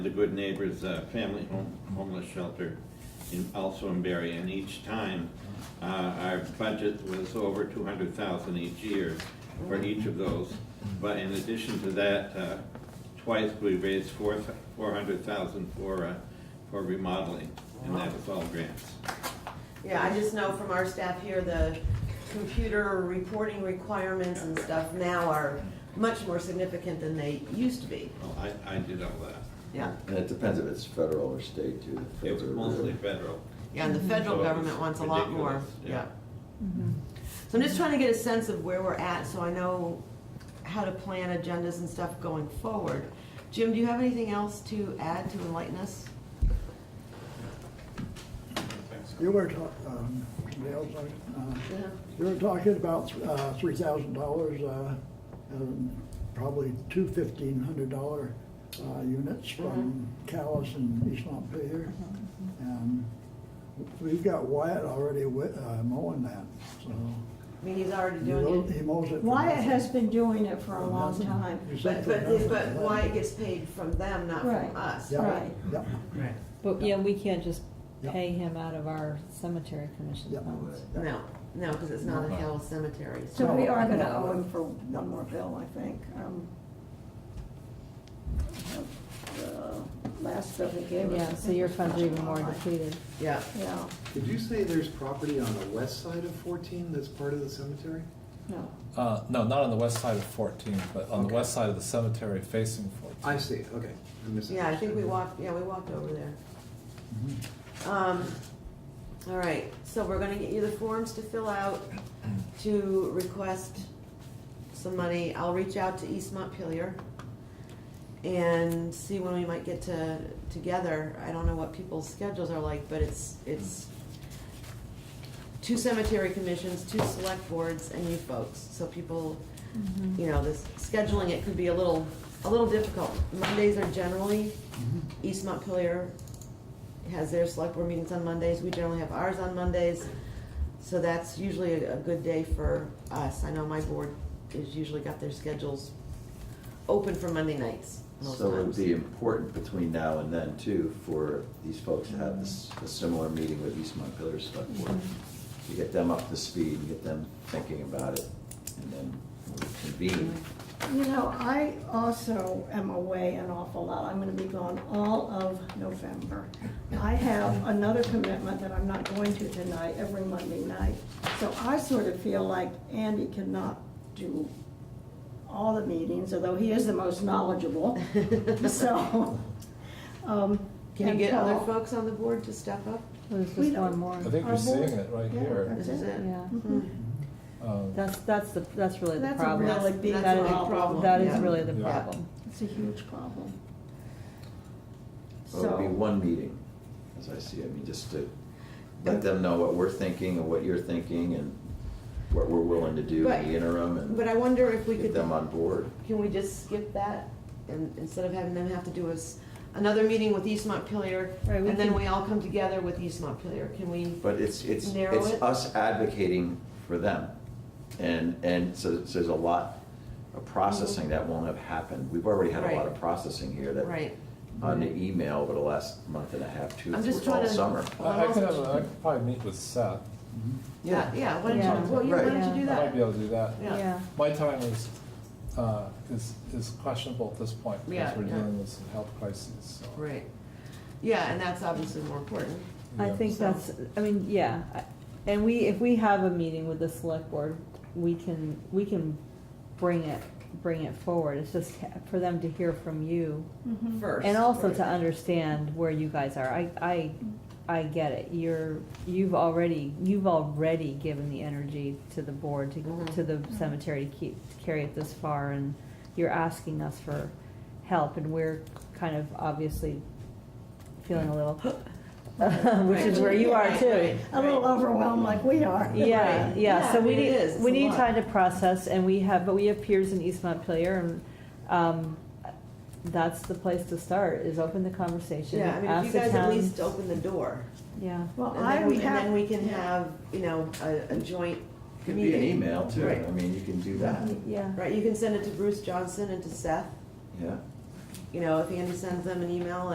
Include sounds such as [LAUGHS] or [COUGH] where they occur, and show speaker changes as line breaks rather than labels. The Good Neighbors uh, Family home- Homeless Shelter in, also in Berry, and each time, uh, our budget was over two hundred thousand each year for each of those. But in addition to that, uh, twice we raised four, four hundred thousand for, uh, for remodeling, and that was all grants.
Yeah, I just know from our staff here, the computer reporting requirements and stuff now are much more significant than they used to be.
Well, I, I did all that.
Yeah,
And it depends if it's federal or state too. the
It was
federal-
mostly federal.
yeah, and the federal
So it was
government wants a lot more,
ridiculous,
yeah.
Mm-hmm.
So I'm just trying to get a sense of where we're at, so I know how to plan agendas and stuff going forward. Jim, do you have anything else to add to enlighten us?
You were talking, Dale, sorry, uh, you were talking about uh, $3,000, uh, and probably two $1,500 uh, units from Callis and East Montpelier. And we've got Wyatt already wi- uh, mowing that, so.
I mean, he's already
he mow-
doing
He
it,
mows it. for
Wyatt
nothing.
has been doing it for a long
Nothing.
time.
You said
but,
for
but,
nothing,
but
but-
Wyatt gets paid from them, not
Right.
from us.
Yeah,
Right.
yeah.
But, yeah, we can't just
Yep.
pay him out of our cemetery commission
Yep.
funds.
Mm-hmm.
No, no, because it's not a Hill cemetery, so.
So we are gonna owe him for one more bill, I think. Um, the Last bill he gave us. I
Yeah, so
think,
your
was
funds are even more
$1,000.
depleted.
Yeah.
Yeah,
Did you say there's property on the west side of 14 that's part of the cemetery?
no.
Uh, no, not on the west side of 14, but on the
Okay.
west side of the cemetery facing 14.
I see, okay. I
Yeah, I think we
misunderstood.
walked, yeah, we walked over there.
Mm-hmm.
Um, all right, so we're gonna get you the forms to fill out to request some money. I'll reach out to East Montpelier and see when we might get to, together. I don't know what people's schedules are like, but it's, it's two cemetery commissions, two select boards, and you folks, so people, you know, this, scheduling it could be a little, a little difficult. Mondays are generally, East Montpelier has their select board meetings on Mondays, we generally have ours on Mondays, so that's usually a, a good day for us. I know my board has usually got their schedules open for Monday nights most
So it would
times.
be important between now and then too, for these folks to have this, a similar meeting with East Montpelier Select Board.
Mm-hmm.
To get them up to speed and get them thinking about it, and then we'll convene.
You know, I also am away an awful lot. I'm gonna be gone all of November. I have another commitment that I'm not going to tonight, every Monday night. So I sort of feel like Andy cannot do all the meetings, although he is the most knowledgeable,
[LAUGHS]
so. um,
Can you
and
get other
Paul-
folks on the board to step up?
There's
We
just one
don't-
more.
I think
Our
you're seeing
board-
it right
yeah,
here.
that's
This is it.
Yeah,
Mhm.
Um,
that's, that's the, Mm-hmm. that's really the
That's a
problem.
really big
That is-
problem.
That is
Yeah.
really the
Yeah.
problem.
It's a huge problem.
It would be
So,
one meeting, as I see it, I mean, just to let them know what we're thinking and what you're thinking and what we're willing to do
But-
in the interim
But
and
I wonder if we
get
could,
them on board.
can we just skip that? And instead of having them have to do us another meeting with East Montpelier,
Right, we
and then
can-
we all come together with East Montpelier, can we?
But it's, it's,
Narrow
it's
it?
us advocating for them. And, and so so there's a lot of processing that won't have happened. We've already had a lot
Mm-hmm. Right.
of processing here that,
Right.
on the email over the last month and a half, two,
I'm just
three- all
trying to-
summer.
I I could have, a- I could probably meet with Seth.
Mm-hmm.
Yeah, yeah, why don't
Yeah.
you, well, you, why don't
Right.
you
I
do
might
that?
be able to do that.
Yeah.
Yeah,
My time is, uh, is, is questionable at this point
Yeah,
because we're
yeah.
dealing with some health crises, so.
Right. Yeah, and that's obviously more important.
I
Yeah.
think
So-
that's, I mean, yeah, I- and we, if we have a meeting with the select board, we can, we can bring it, bring it forward. It's just for them to hear from you.
mhm.
First.
Mm-hmm. And also to
Right.
understand where you guys are. I, I, I get it. You're, you've already, you've already given the energy to the board, to,
Mhm.
to the cemetery to keep, to carry it this far, and you're asking us for help, and we're kind of obviously feeling a little, [LAUGHS] which is where you are
Right,
too.
right,
A little
right.
overwhelmed like we are.
Yeah,
Right.
yeah, so
Yeah,
we
it
need,
is.
we
It's a
need
lot.
time to process, and we have, but we have peers in East Montpelier, and, um, that's the place to start, is open the conversation.
Yeah, I mean, if
ask
you
the
guys at
town-
least open the door,
Yeah,
Well,
and
I
then
have.
we, and then we can have, you know, a, a joint
Could be an
meeting.
email too,
Right.
I mean, you can do that,
yeah,
Right, you can send it to Bruce Johnson and to Seth,
yeah.
you know, if Andy sends them an email